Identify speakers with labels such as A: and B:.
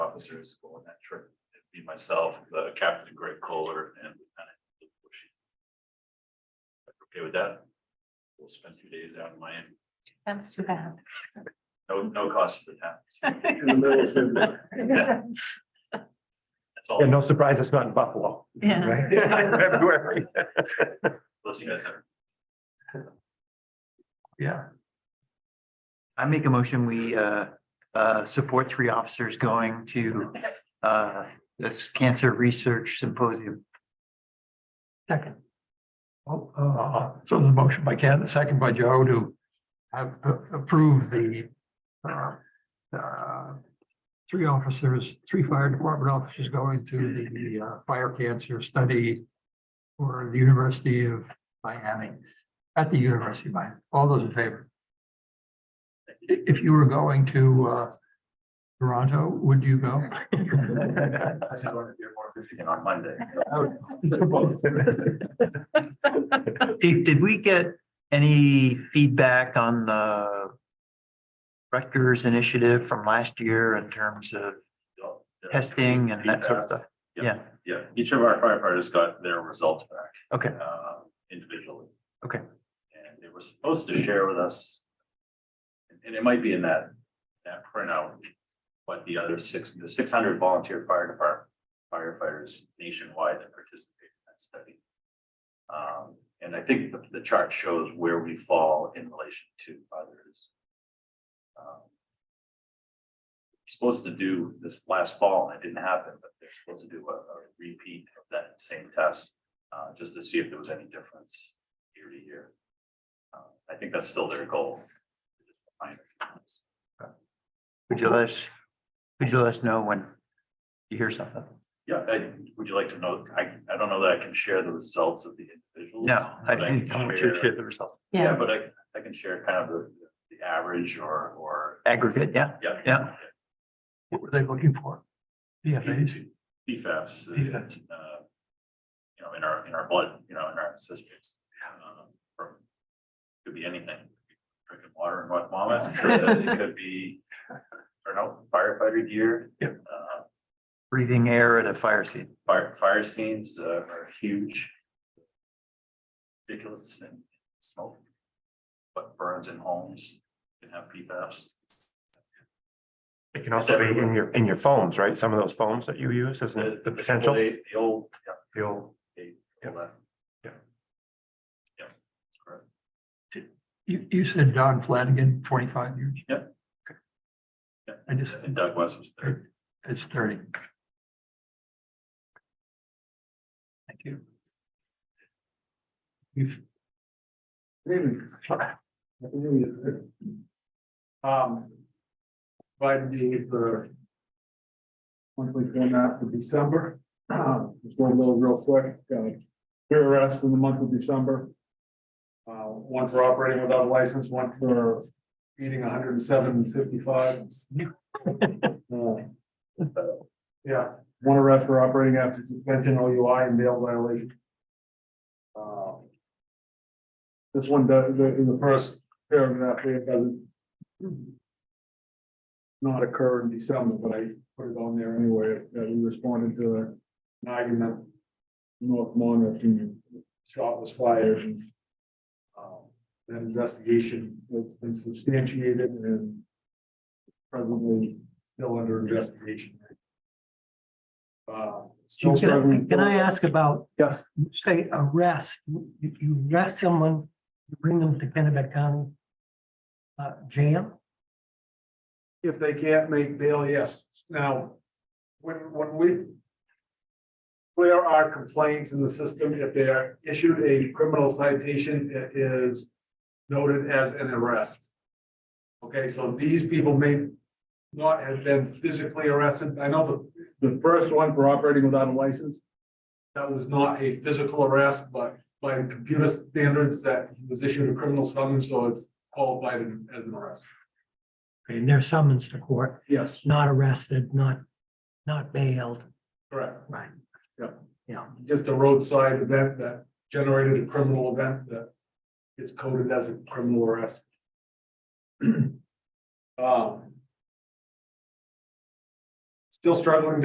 A: officers going that trip. It'd Be myself, the Captain Greg Kohler and Lieutenant Luke Bushy. Okay with that? We'll spend two days out in Miami.
B: That's too bad.
A: No, no cost for the town.
B: Yeah.
A: That's all.
C: Yeah, no surprise, it's not in Buffalo, right? February.
A: Unless you guys have
C: Yeah,
D: I make a motion, we uh uh support three officers going to uh this cancer research symposium.
E: Oh, uh, So there's a motion by Ken, a second by Joe to have approved the uh, uh, three officers, three fire department officers going to the uh, fire cancer study for the University of Miami, at the University of Miami. All those in favor? I- If you were going to uh, Toronto, would you go?
A: I just wanted to hear more if you can on Monday.
D: Did did we get any feedback on the Rutgers initiative from last year in terms of testing and that sort of stuff? Yeah,
A: Yeah, each of our firefighters got their results back.
D: okay,
A: uh, individually.
D: Okay.
A: And they were supposed to share with us. And it might be in that, that printout, what the other six, the six hundred volunteer fire department firefighters nationwide that participated in that study. Um, and I think the, the chart shows where we fall in relation to others. Um, Supposed to do this last fall, and it didn't happen, but they're supposed to do a, a repeat of that same test uh, just to see if there was any difference year to year. Uh, I think that's still their goal.
D: would you let us, would you let us know when you hear something?
A: Yeah, I, would you like to know, I, I don't know that I can share the results of the individuals.
D: No, I
A: but can
D: didn't come to
A: share-
D: hear the result.
A: Yeah, but I, I can share kind of the, the average or, or,
D: Aggregate, yeah,
A: yeah.
D: Yeah.
E: What were they looking for? BFAs?
A: PFAS. uh,
E: PFAS.
A: uh, You know, in our, in our blood, you know, in our systems. um, from- Could be anything, drinking water in North Monmouth, it could be, or no, firefighter gear.
E: Yep.
A: Uh,
D: breathing air at a fire scene.
A: Fire, fire scenes uh, are huge. Ridiculous and smoke. But burns in homes can have PFAS.
C: it can also be in your, in your phones, right? Some of those phones that you use is
A: The-
C: the potential.
A: The old, yeah,
C: The old-
A: the
C: Yep.
A: left.
C: Yep.
A: Yep, that's correct.
E: You, you said Don Flanagan, twenty-five years?
A: Yep.
E: Okay.
A: Yep.
E: I just,
A: And Doug West was there.
E: it's thirty. Thank you. You've,
F: Um. Provided the, the. Monthly format for December, Um, just one little real quick, uh, arrests in the month of December. Uh, one for operating without a license, one for eating hundred and seven fifty-five. Uh, Yeah, one arrest for operating after suspension, OUI and bail violation. Uh, This one, does the, in the first paragraph, here, it doesn't not occur in December, but I put it on there anyway, that we responded to an argument. in North Monmouth and shot was fired and. um, That investigation has been substantiated and. Presently still under investigation. Uh, still struggling.
G: Can can I ask about,
F: Yes,
G: you say arrest, you, you arrest someone, you bring them to Kennebec County uh, jail?
F: if they can't make bail, yes. Now, when, when we clear our complaints in the system, if they are issued a criminal citation, it is noted as an arrest. Okay, so these people may not have been physically arrested. I know the, the first one for operating without a license, that was not a physical arrest, but by computer standards, that he was issued a criminal summons, so it's qualified as an arrest.
G: Okay, and they're summons to court,
F: Yes,
G: not arrested, not, not bailed,
F: correct.
G: right?
F: Yep.
G: Yeah,
F: just a roadside event that generated a criminal event that it's coded as a criminal arrest. Um, still struggling